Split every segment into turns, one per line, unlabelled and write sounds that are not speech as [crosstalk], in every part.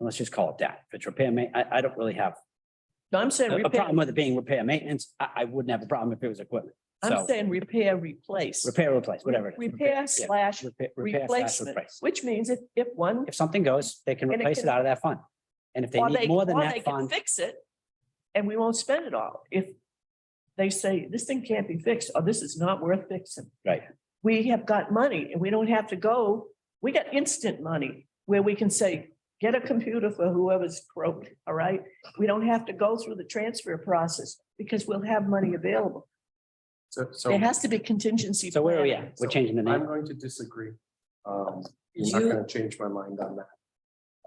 let's just call it that. If it's repair ma, I, I don't really have
No, I'm saying
a a
repair,
problem with it being repair maintenance. I, I wouldn't have a problem if it was equipment.
I'm
So
saying repair, replace.
repair, replace, whatever. it is.
Repair
yeah.
slash
Repair- repair slash
replacement,
replace.
which means if, if one,
If something goes, they can
And it
replace it
can-
out of that fund. And if they
or they,
need more than
or they
that
can
fund,
fix it and we won't spend it all. If they say this thing can't be fixed or this is not worth fixing.
Right.
We have got money and we don't have to go, we got instant money where we can say, get a computer for whoever's broke, all right? We don't have to go through the transfer process because we'll have money available.
So, so
There has to be contingency.
so where are we
planning.
at? We're changing the
I'm
name.
going to disagree. Um, you're not
You-
gonna change my mind on that.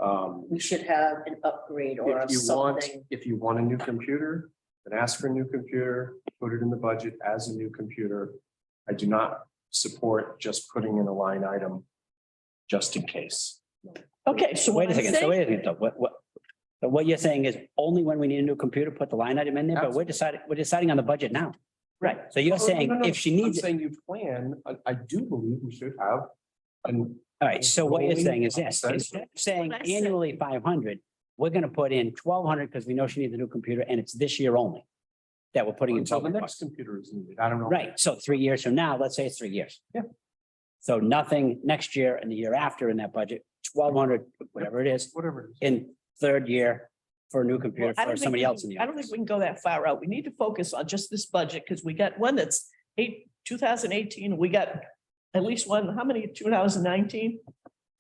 Um,
we should have an upgrade or
if you want,
something.
if you want a new computer, then ask for a new computer, put it in the budget as a new computer. I do not support just putting in a line item just in case.
Okay, so
Wait
what
a
I'm
second, so
saying,
wait a second, though. what, what? But what you're saying is only when we need a new computer, put the line item in there, but we're deciding, we're deciding on the budget now.
right,
So you're
Oh, no, no,
saying
no.
if she
I'm
needs, it.
saying you plan, I, I do believe we should have an
all right, so what you're
Rolling
saying is this,
process.
instead of saying
What I said.
annually five hundred, we're gonna put in twelve hundred because we know she needs a new computer and it's this year only. That we're putting in
until
twelve
the
hundred
next computer is needed. I don't know.
Right, so three years from now, let's say it's three years.
Yeah.
So nothing next year and the year after in that budget, twelve hundred, whatever it is,
Whatever. it is.
in third year for a new
Well,
computer
I don't
for
think
somebody
we
else in
can-
the.
I don't think we can go that far out. We need to focus on just this budget because we got one that's eight, two thousand eighteen, we got at least one, how many, two thousand nineteen?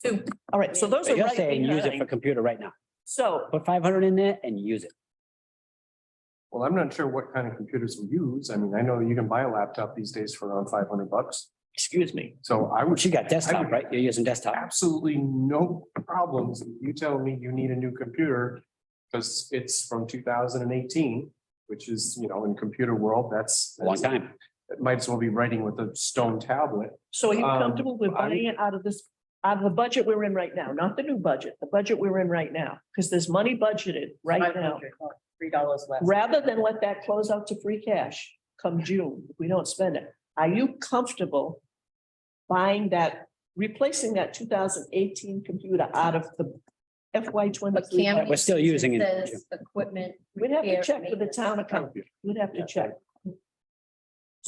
Two.
All right, so those
But
are
you're
right
saying use it for
behind.
computer right now.
So,
Put five hundred in there and use it.
Well, I'm not sure what kind of computers we use. I mean, I know you can buy a laptop these days for around five hundred bucks.
excuse me,
So I would
She got desktop, right? You're using desktop.
absolutely no problems. if You tell me you need a new computer because it's from two thousand and eighteen, which is, you know, in computer world, that's.
Long time.
It might as well be writing with a stone tablet.
so are you
Um,
comfortable with
I-
buying it out of this, out of the budget we're in right now, not the new budget, the budget we're in right now? Because there's money budgeted right now.
$500, oh, Three dollars less.
rather than let that close out to free cash come June, if we don't spend it, are you comfortable buying that, replacing that two thousand eighteen computer out of the FY
But
twenty-three?
can we?
We're still using it.
Says equipment.
We'd have to
repair,
check with the
maintenance.
town accountant. We'd have to
Yeah.
check.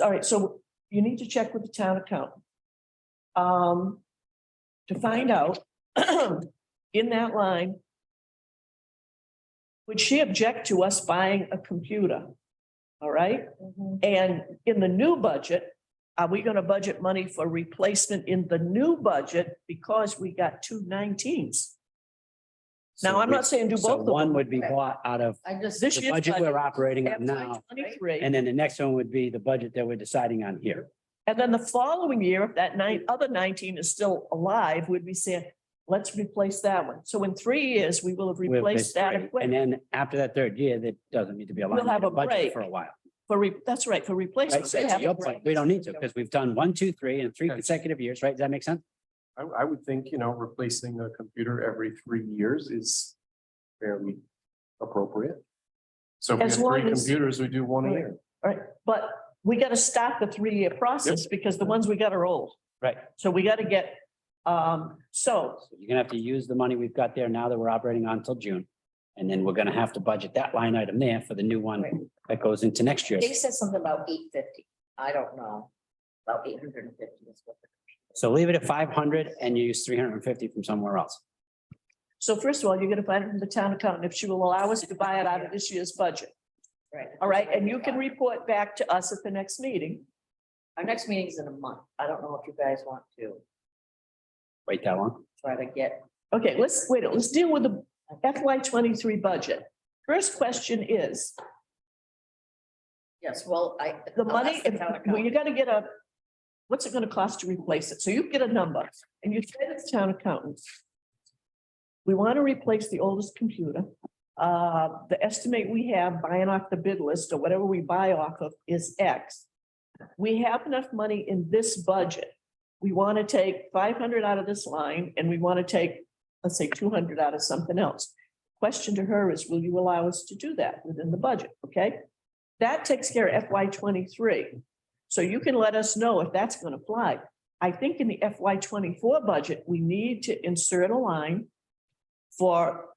All right, so you need to check with the town accountant. Um, to find out, [clears throat] in that line. Would she object to us buying a computer? All right?
Mhm.
And in the new budget, are we gonna budget money for replacement in the new budget because we got two 19s? Now,
So
I'm
we-
not saying do
So
both of them.
one would be bought out of
I just,
This
the
year's
budget
budget,
we're operating on now.
FY23,
And then the next one would be the budget that we're deciding on here.
And then the following year, if that nine, other nineteen is still alive, would be saying, let's replace that one. So in three years, we will have
We'll
replaced that
basically- And
equipment
then after that third year, that doesn't need to be a
We'll
line
have a
item budget
break.
for a while.
for, re- that's right, for
Right?
replacement.
So
They
to
have-
your point, we don't need to because we've done one, two, three and three
Okay.
consecutive years, right? Does that make sense?
I, I would think, you know, replacing a computer every three years is fairly appropriate. So if we
As
have three
long as-
computers, we do one a year.
But we gotta start the three-year process because the ones we got are old.
Right.
So we gotta get, um, so
So You're gonna have to use the money we've got there now that we're operating on until June. And then we're gonna have to budget that line item there for the new
Right.
one that goes into next year.
they said something about eight fifty. I don't know. About eight hundred and fifty is what.
So leave it at five hundred and you use three hundred and fifty from somewhere else.
So first of all, you're gonna find it from the town accountant if she will allow us to buy it out of this year's budget.
Right.
All right, and you can report back to us at the next meeting.
Our next meeting is in a month. I don't know if you guys want to
Wait that long.
try to get.
Okay, let's, wait, let's deal with the FY twenty-three budget. First question is,
Yes, well, I.
the
I'll
money,
ask Oh, the
if,
town
well, you
accountant.
gotta get a, what's it gonna cost to replace it? So you get a number and you say to the town accountant. We wanna replace the oldest computer. Uh, the estimate we have buying off the bid list or whatever we buy off of is X. We have enough money in this budget. We wanna take five hundred out of this line and we wanna take, let's say, two hundred out of something else. Question to her is, will you allow us to do that within the budget? Okay? That takes care of FY twenty-three. So you can let us know if that's gonna apply. I think in the FY twenty-four budget, we need to insert a line for